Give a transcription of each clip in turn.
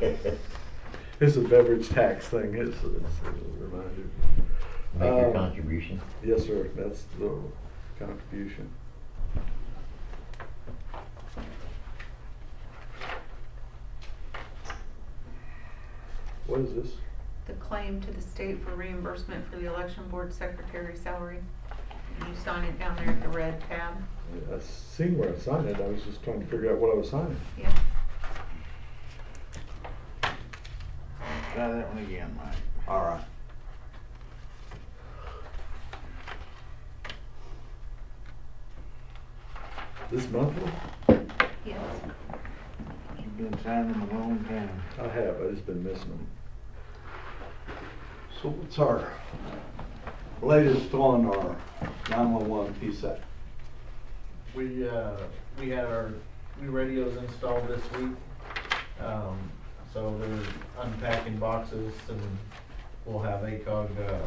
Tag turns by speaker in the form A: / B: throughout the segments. A: It's a beverage tax thing, it's, it's a reminder.
B: Make your
A: Um,
B: contribution.
A: Yes, sir, that's the contribution. What is this?
C: The claim to the state for reimbursement for the election board secretary salary. You sign it down there at the red tab.
A: I seen where I signed it, I was just trying to figure out what I was signing.
C: Yeah.
D: Try that one again, Mike.
E: All right.
A: This monthly?
C: Yes.
D: You've been signing a long time.
A: I have, I just been missing them.
E: So what's our latest on our 911 PSAT?
F: We, uh, we had our, we radios installed this week. Um, so they're unpacking boxes and we'll have ACOG, uh,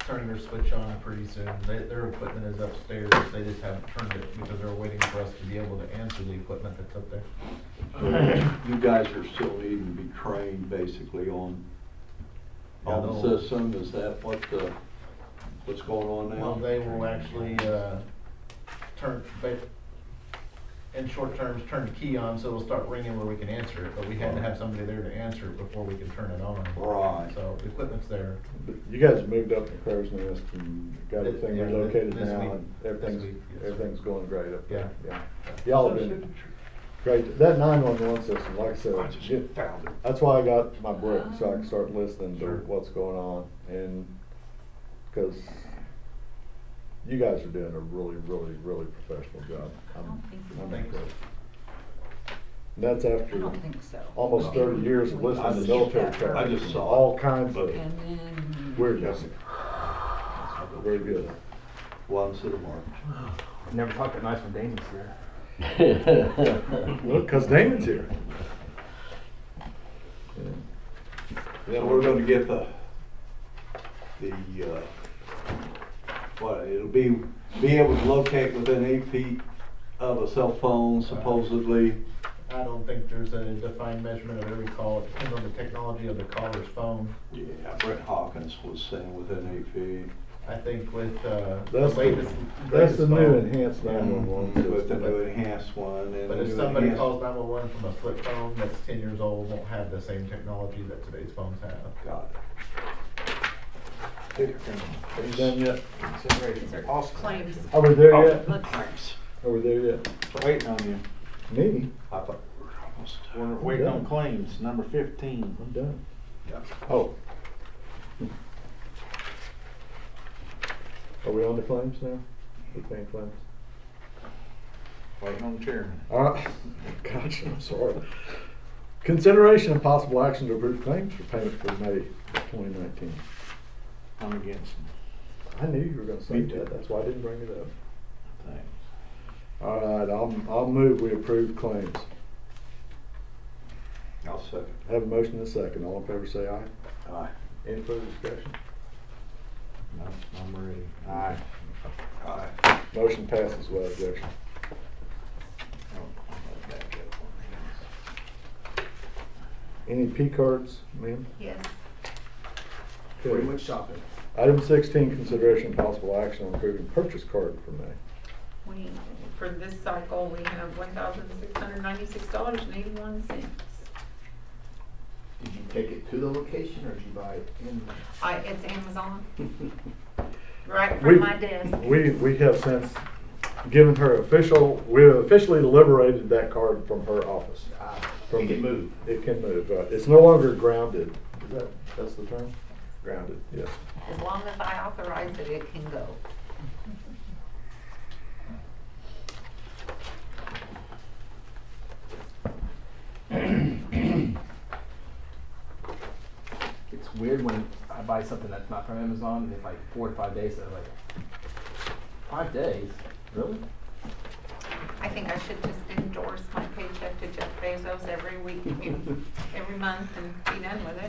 F: turning their switch on pretty soon. They, their equipment is upstairs, they just haven't turned it because they're waiting for us to be able to answer the equipment that's up there.
E: You guys are still needing to be trained basically on,
F: Yeah,
E: on the
F: they'll-
E: system, is that what the, what's going on now?
F: Well, they will actually, uh, turn, they, in short terms, turn the key on, so it'll start ringing where we can answer it, but we had to have somebody there to answer it before we could turn it on.
E: Right.
F: So the equipment's there.
A: But You guys moved up to Crow's Nest and got
F: This-
A: everything
F: yeah, thi-
A: relocated
F: this
A: now
F: week-
A: and
F: this week,
A: everything's,
F: yes.
A: everything's going great up there. Yeah.
F: Yeah.
A: Y'all have been great. That nine-one-one system, like I said.
E: I just
A: get-
E: found it.
A: That's why I got my book, so I can start listening to
F: Sure.
A: what's going on and, cause you guys are doing a really, really, really professional job.
C: I
A: I'm-
C: don't think we
A: I'm
C: will.
A: impressed. And that's after
C: I don't think so.
A: almost thirty years of
E: I
A: listening to
E: just-
A: military
E: I
A: training,
E: just
A: and
E: saw it.
A: all kinds of
C: And then.
A: weirdness. Very good.
E: One to the mark.
G: Never talked that nice when Damon's here.
A: Look, cause Damon's here. Yeah,
E: So we're gonna get the, the, uh, what, it'll be, be able to locate within eight feet of a cell phone supposedly.
F: I don't think there's a defined measurement of every call, it depends on the technology of the caller's phone.
E: Yeah, Brett Hawkins was saying within eight feet.
F: I think with, uh, the
A: That's, the-
F: latest. and
A: that's the
F: greatest
A: new
F: phone,
A: enhanced nine-one-one
E: With the new
A: system.
E: enhanced one and.
F: But
E: the
F: if
E: new
F: somebody
E: enhanced-
F: calls nine-one-one from a flip phone that's ten years old, won't have the same technology that today's phones have.
E: Got
D: Take
A: Are you done yet?
D: Consideration
C: These are
D: for possible
C: claims.
D: action.
A: Are we there
E: it.
A: yet?
C: Let's-
E: Thanks.
A: Are we there yet?
D: Waiting on you.
A: Me?
E: I thought we were almost done.
D: We're waiting on claims, number fifteen.
A: I'm done.
E: Yeah.
A: Oh. Are we on the claims now? We paying claims?
D: Waiting on the chairman.
A: Uh, gosh, I'm sorry. Consideration of possible action to approve claims for payment for May twenty nineteen.
D: I'm against them.
A: I knew you were gonna say
E: Me too.
A: that, that's why I didn't bring it up.
D: Thanks.
A: All right, I'll, I'll move we approve claims.
E: I'll second.
A: Have a motion and a second, all in favor say aye.
E: Aye.
A: Any further discussion?
D: No, I'm ready. Aye.
E: Aye.
A: Motion passes without objection.
D: Oh, I'll back up on these.
A: Any P cards, ma'am?
C: Yes.
A: Okay.
G: Pretty much shopping.
A: Item sixteen, consideration and possible action on approving purchase card for May.
C: We, for this cycle, we have one thousand six hundred ninety-six dollars and eighty-one cents.
G: Did you take it to the location or did you buy it in?
C: I, it's Amazon. Right
A: We-
C: from my desk.
A: We, we have since given her official, we have officially liberated that card from her office.
G: Ah,
A: From
G: it
A: the-
G: can move.
A: It can move, uh, it's no longer grounded. Is that, that's the term? Grounded, yes.
C: As long as I authorize it, it can go.
G: It's weird when I buy something that's not from Amazon and it's like four to five days. So I'm like, five days? Really?
C: I think I should just endorse my paycheck to Jeff Bezos every week, every month and be done with it.